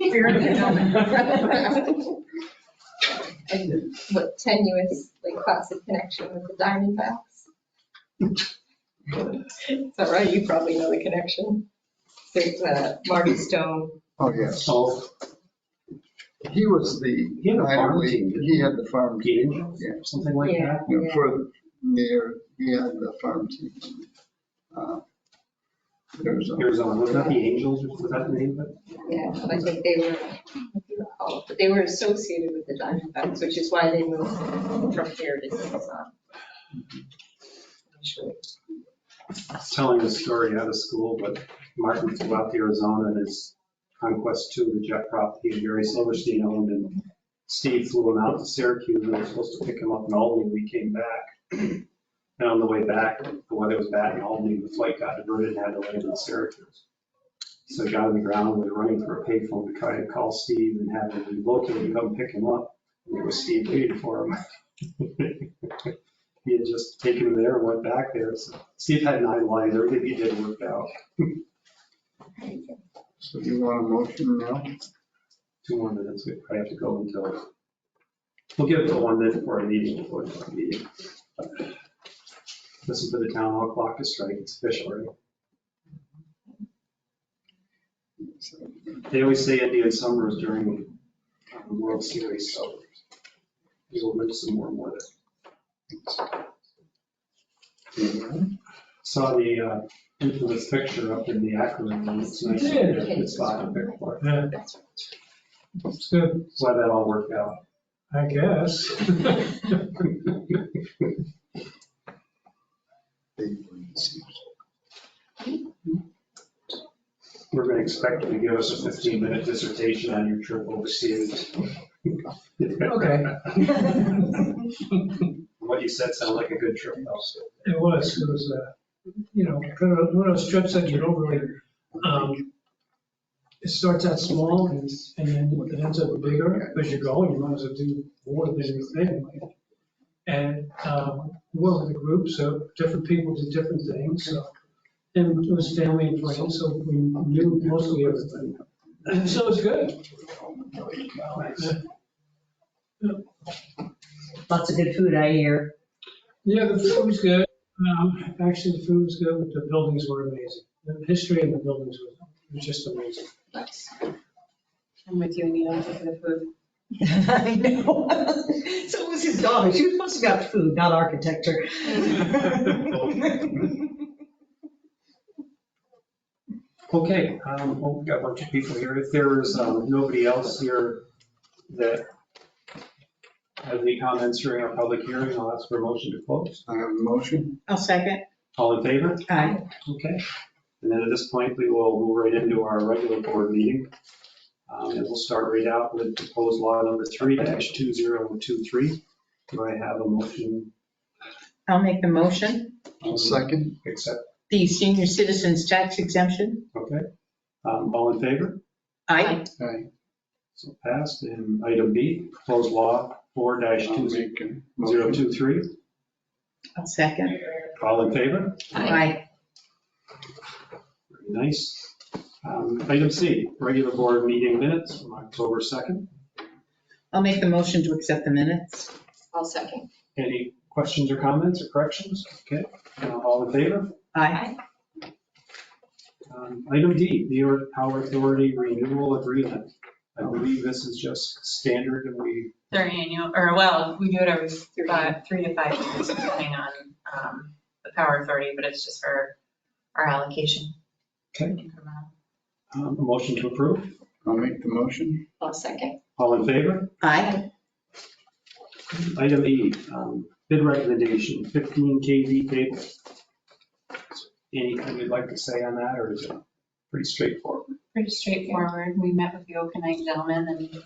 Spirit of the gentleman. And what tenuous, like classic connection with the Diamondbacks? Is that right? You probably know the connection. There's uh, Marty Stone. Oh, yes. So, He was the, He had a farm minor league- team. he had the farm team. Gator? Yeah. something like Yeah, that. You know, yeah. For near, he had the farm team. Uh, There's a, Arizona, was that the Angels, was that the name of it? Yeah, but I think they were, if you recall, but they were associated with the Diamondbacks, which is why they moved from here to Tucson. Actually, I was Telling a story out of school, but Martin flew out to Arizona in his Conquest II, the jet prop he and Jerry Silverstein owned, and Steve flew him out to Syracuse, and we were supposed to pick him up in Albany, we came back. And on the way back, the weather was bad in Albany, the flight got diverted and had to land in Syracuse. So he got on the ground, we were running for a payphone to try and call Steve and have him relocate and come pick him up. And it was Steve waiting for him. He had just taken him there and went back there, so Steve had nine lines, everything he did worked out. so you want a motion now? Two more minutes, we probably have to go until, we'll give it to one minute for a meeting, before the meeting. This is for the town hall clock to strike, it's official, right? They always say Indian summer is during um, the World Series, so we'll live some more and more there. Saw the uh, infamous picture up in the Akron, and it's nice, it's spot to pick for. Yeah, that's right. it's good, Why that all worked out. I guess. We're going to expect you to give us a 15-minute dissertation on your trip overseas. Okay. What you said sounded like a good trip, also. It was, it was, uh, you know, kind of one of those trips that you don't really, um, it starts out small and then it ends up bigger as you go, and you might as well do more than you think. And, um, we're with a group, so different people did different things, so, and it was family and friends, so we knew mostly everything. And so it's good. Lots of good food, I hear. Yeah, the food was good. Um, Actually, the food was good, but the buildings were amazing. The history of the buildings was was just amazing. Nice. I'm with you, Anita, for the food. I know. So it was his daughter. She was supposed to be about food, not architecture. Okay, um, oh, we've got a bunch of people here. If there's um, nobody else here that has any comments during our public hearing, I'll ask for a motion to close. I have a motion. I'll second. All in favor? Aye. Okay. And then at this point, we will move right into our regular board meeting. Um, And we'll start right out with proposed law number three dash two zero two three. Do I have a motion? I'll make the motion, um, Second, Accept, the senior citizens tax exemption. okay. Um, All in favor? Aye. I So passed. And item B, proposed law four dash I'll two make a zero motion. two three. I'll second. All in favor? Aye. Very Nice. Um, Item C, regular board meeting minutes from October 2nd. I'll make the motion to accept the minutes. I'll second. Any questions or comments or corrections? Okay, Uh, all in favor? Aye. Um, Item D, the Power Authority Renewal Agreement. I believe this is just standard and we, Their annual, or well, we do it every five, three to five years, depending on um, the power authority, but it's just for our allocation. Okay. Incremental. um, a motion to approve. I'll make the motion. I'll second. All in favor? Aye. Item E, um, bid recommendation, 15 KV cable. Anything you'd like to say on that or is it pretty straightforward? Pretty straightforward. We met with the Okanite gentleman and it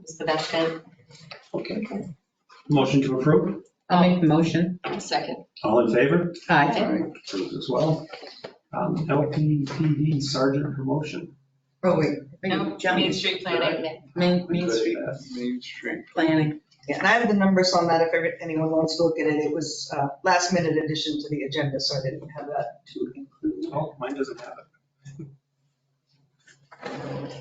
was the best bid. Okay. Motion to approve. I'll make the motion. I'll second. All in favor? Aye. Approved as well. Um, LPPD Sergeant Promotion. Oh, wait. No, Main Street Planning. Main, Main Street Main Street. planning. Yeah, and I have the numbers on that if ever- anyone wants to look at it. It was uh, last minute addition to the agenda, so I didn't have that to include. Oh, mine doesn't have it.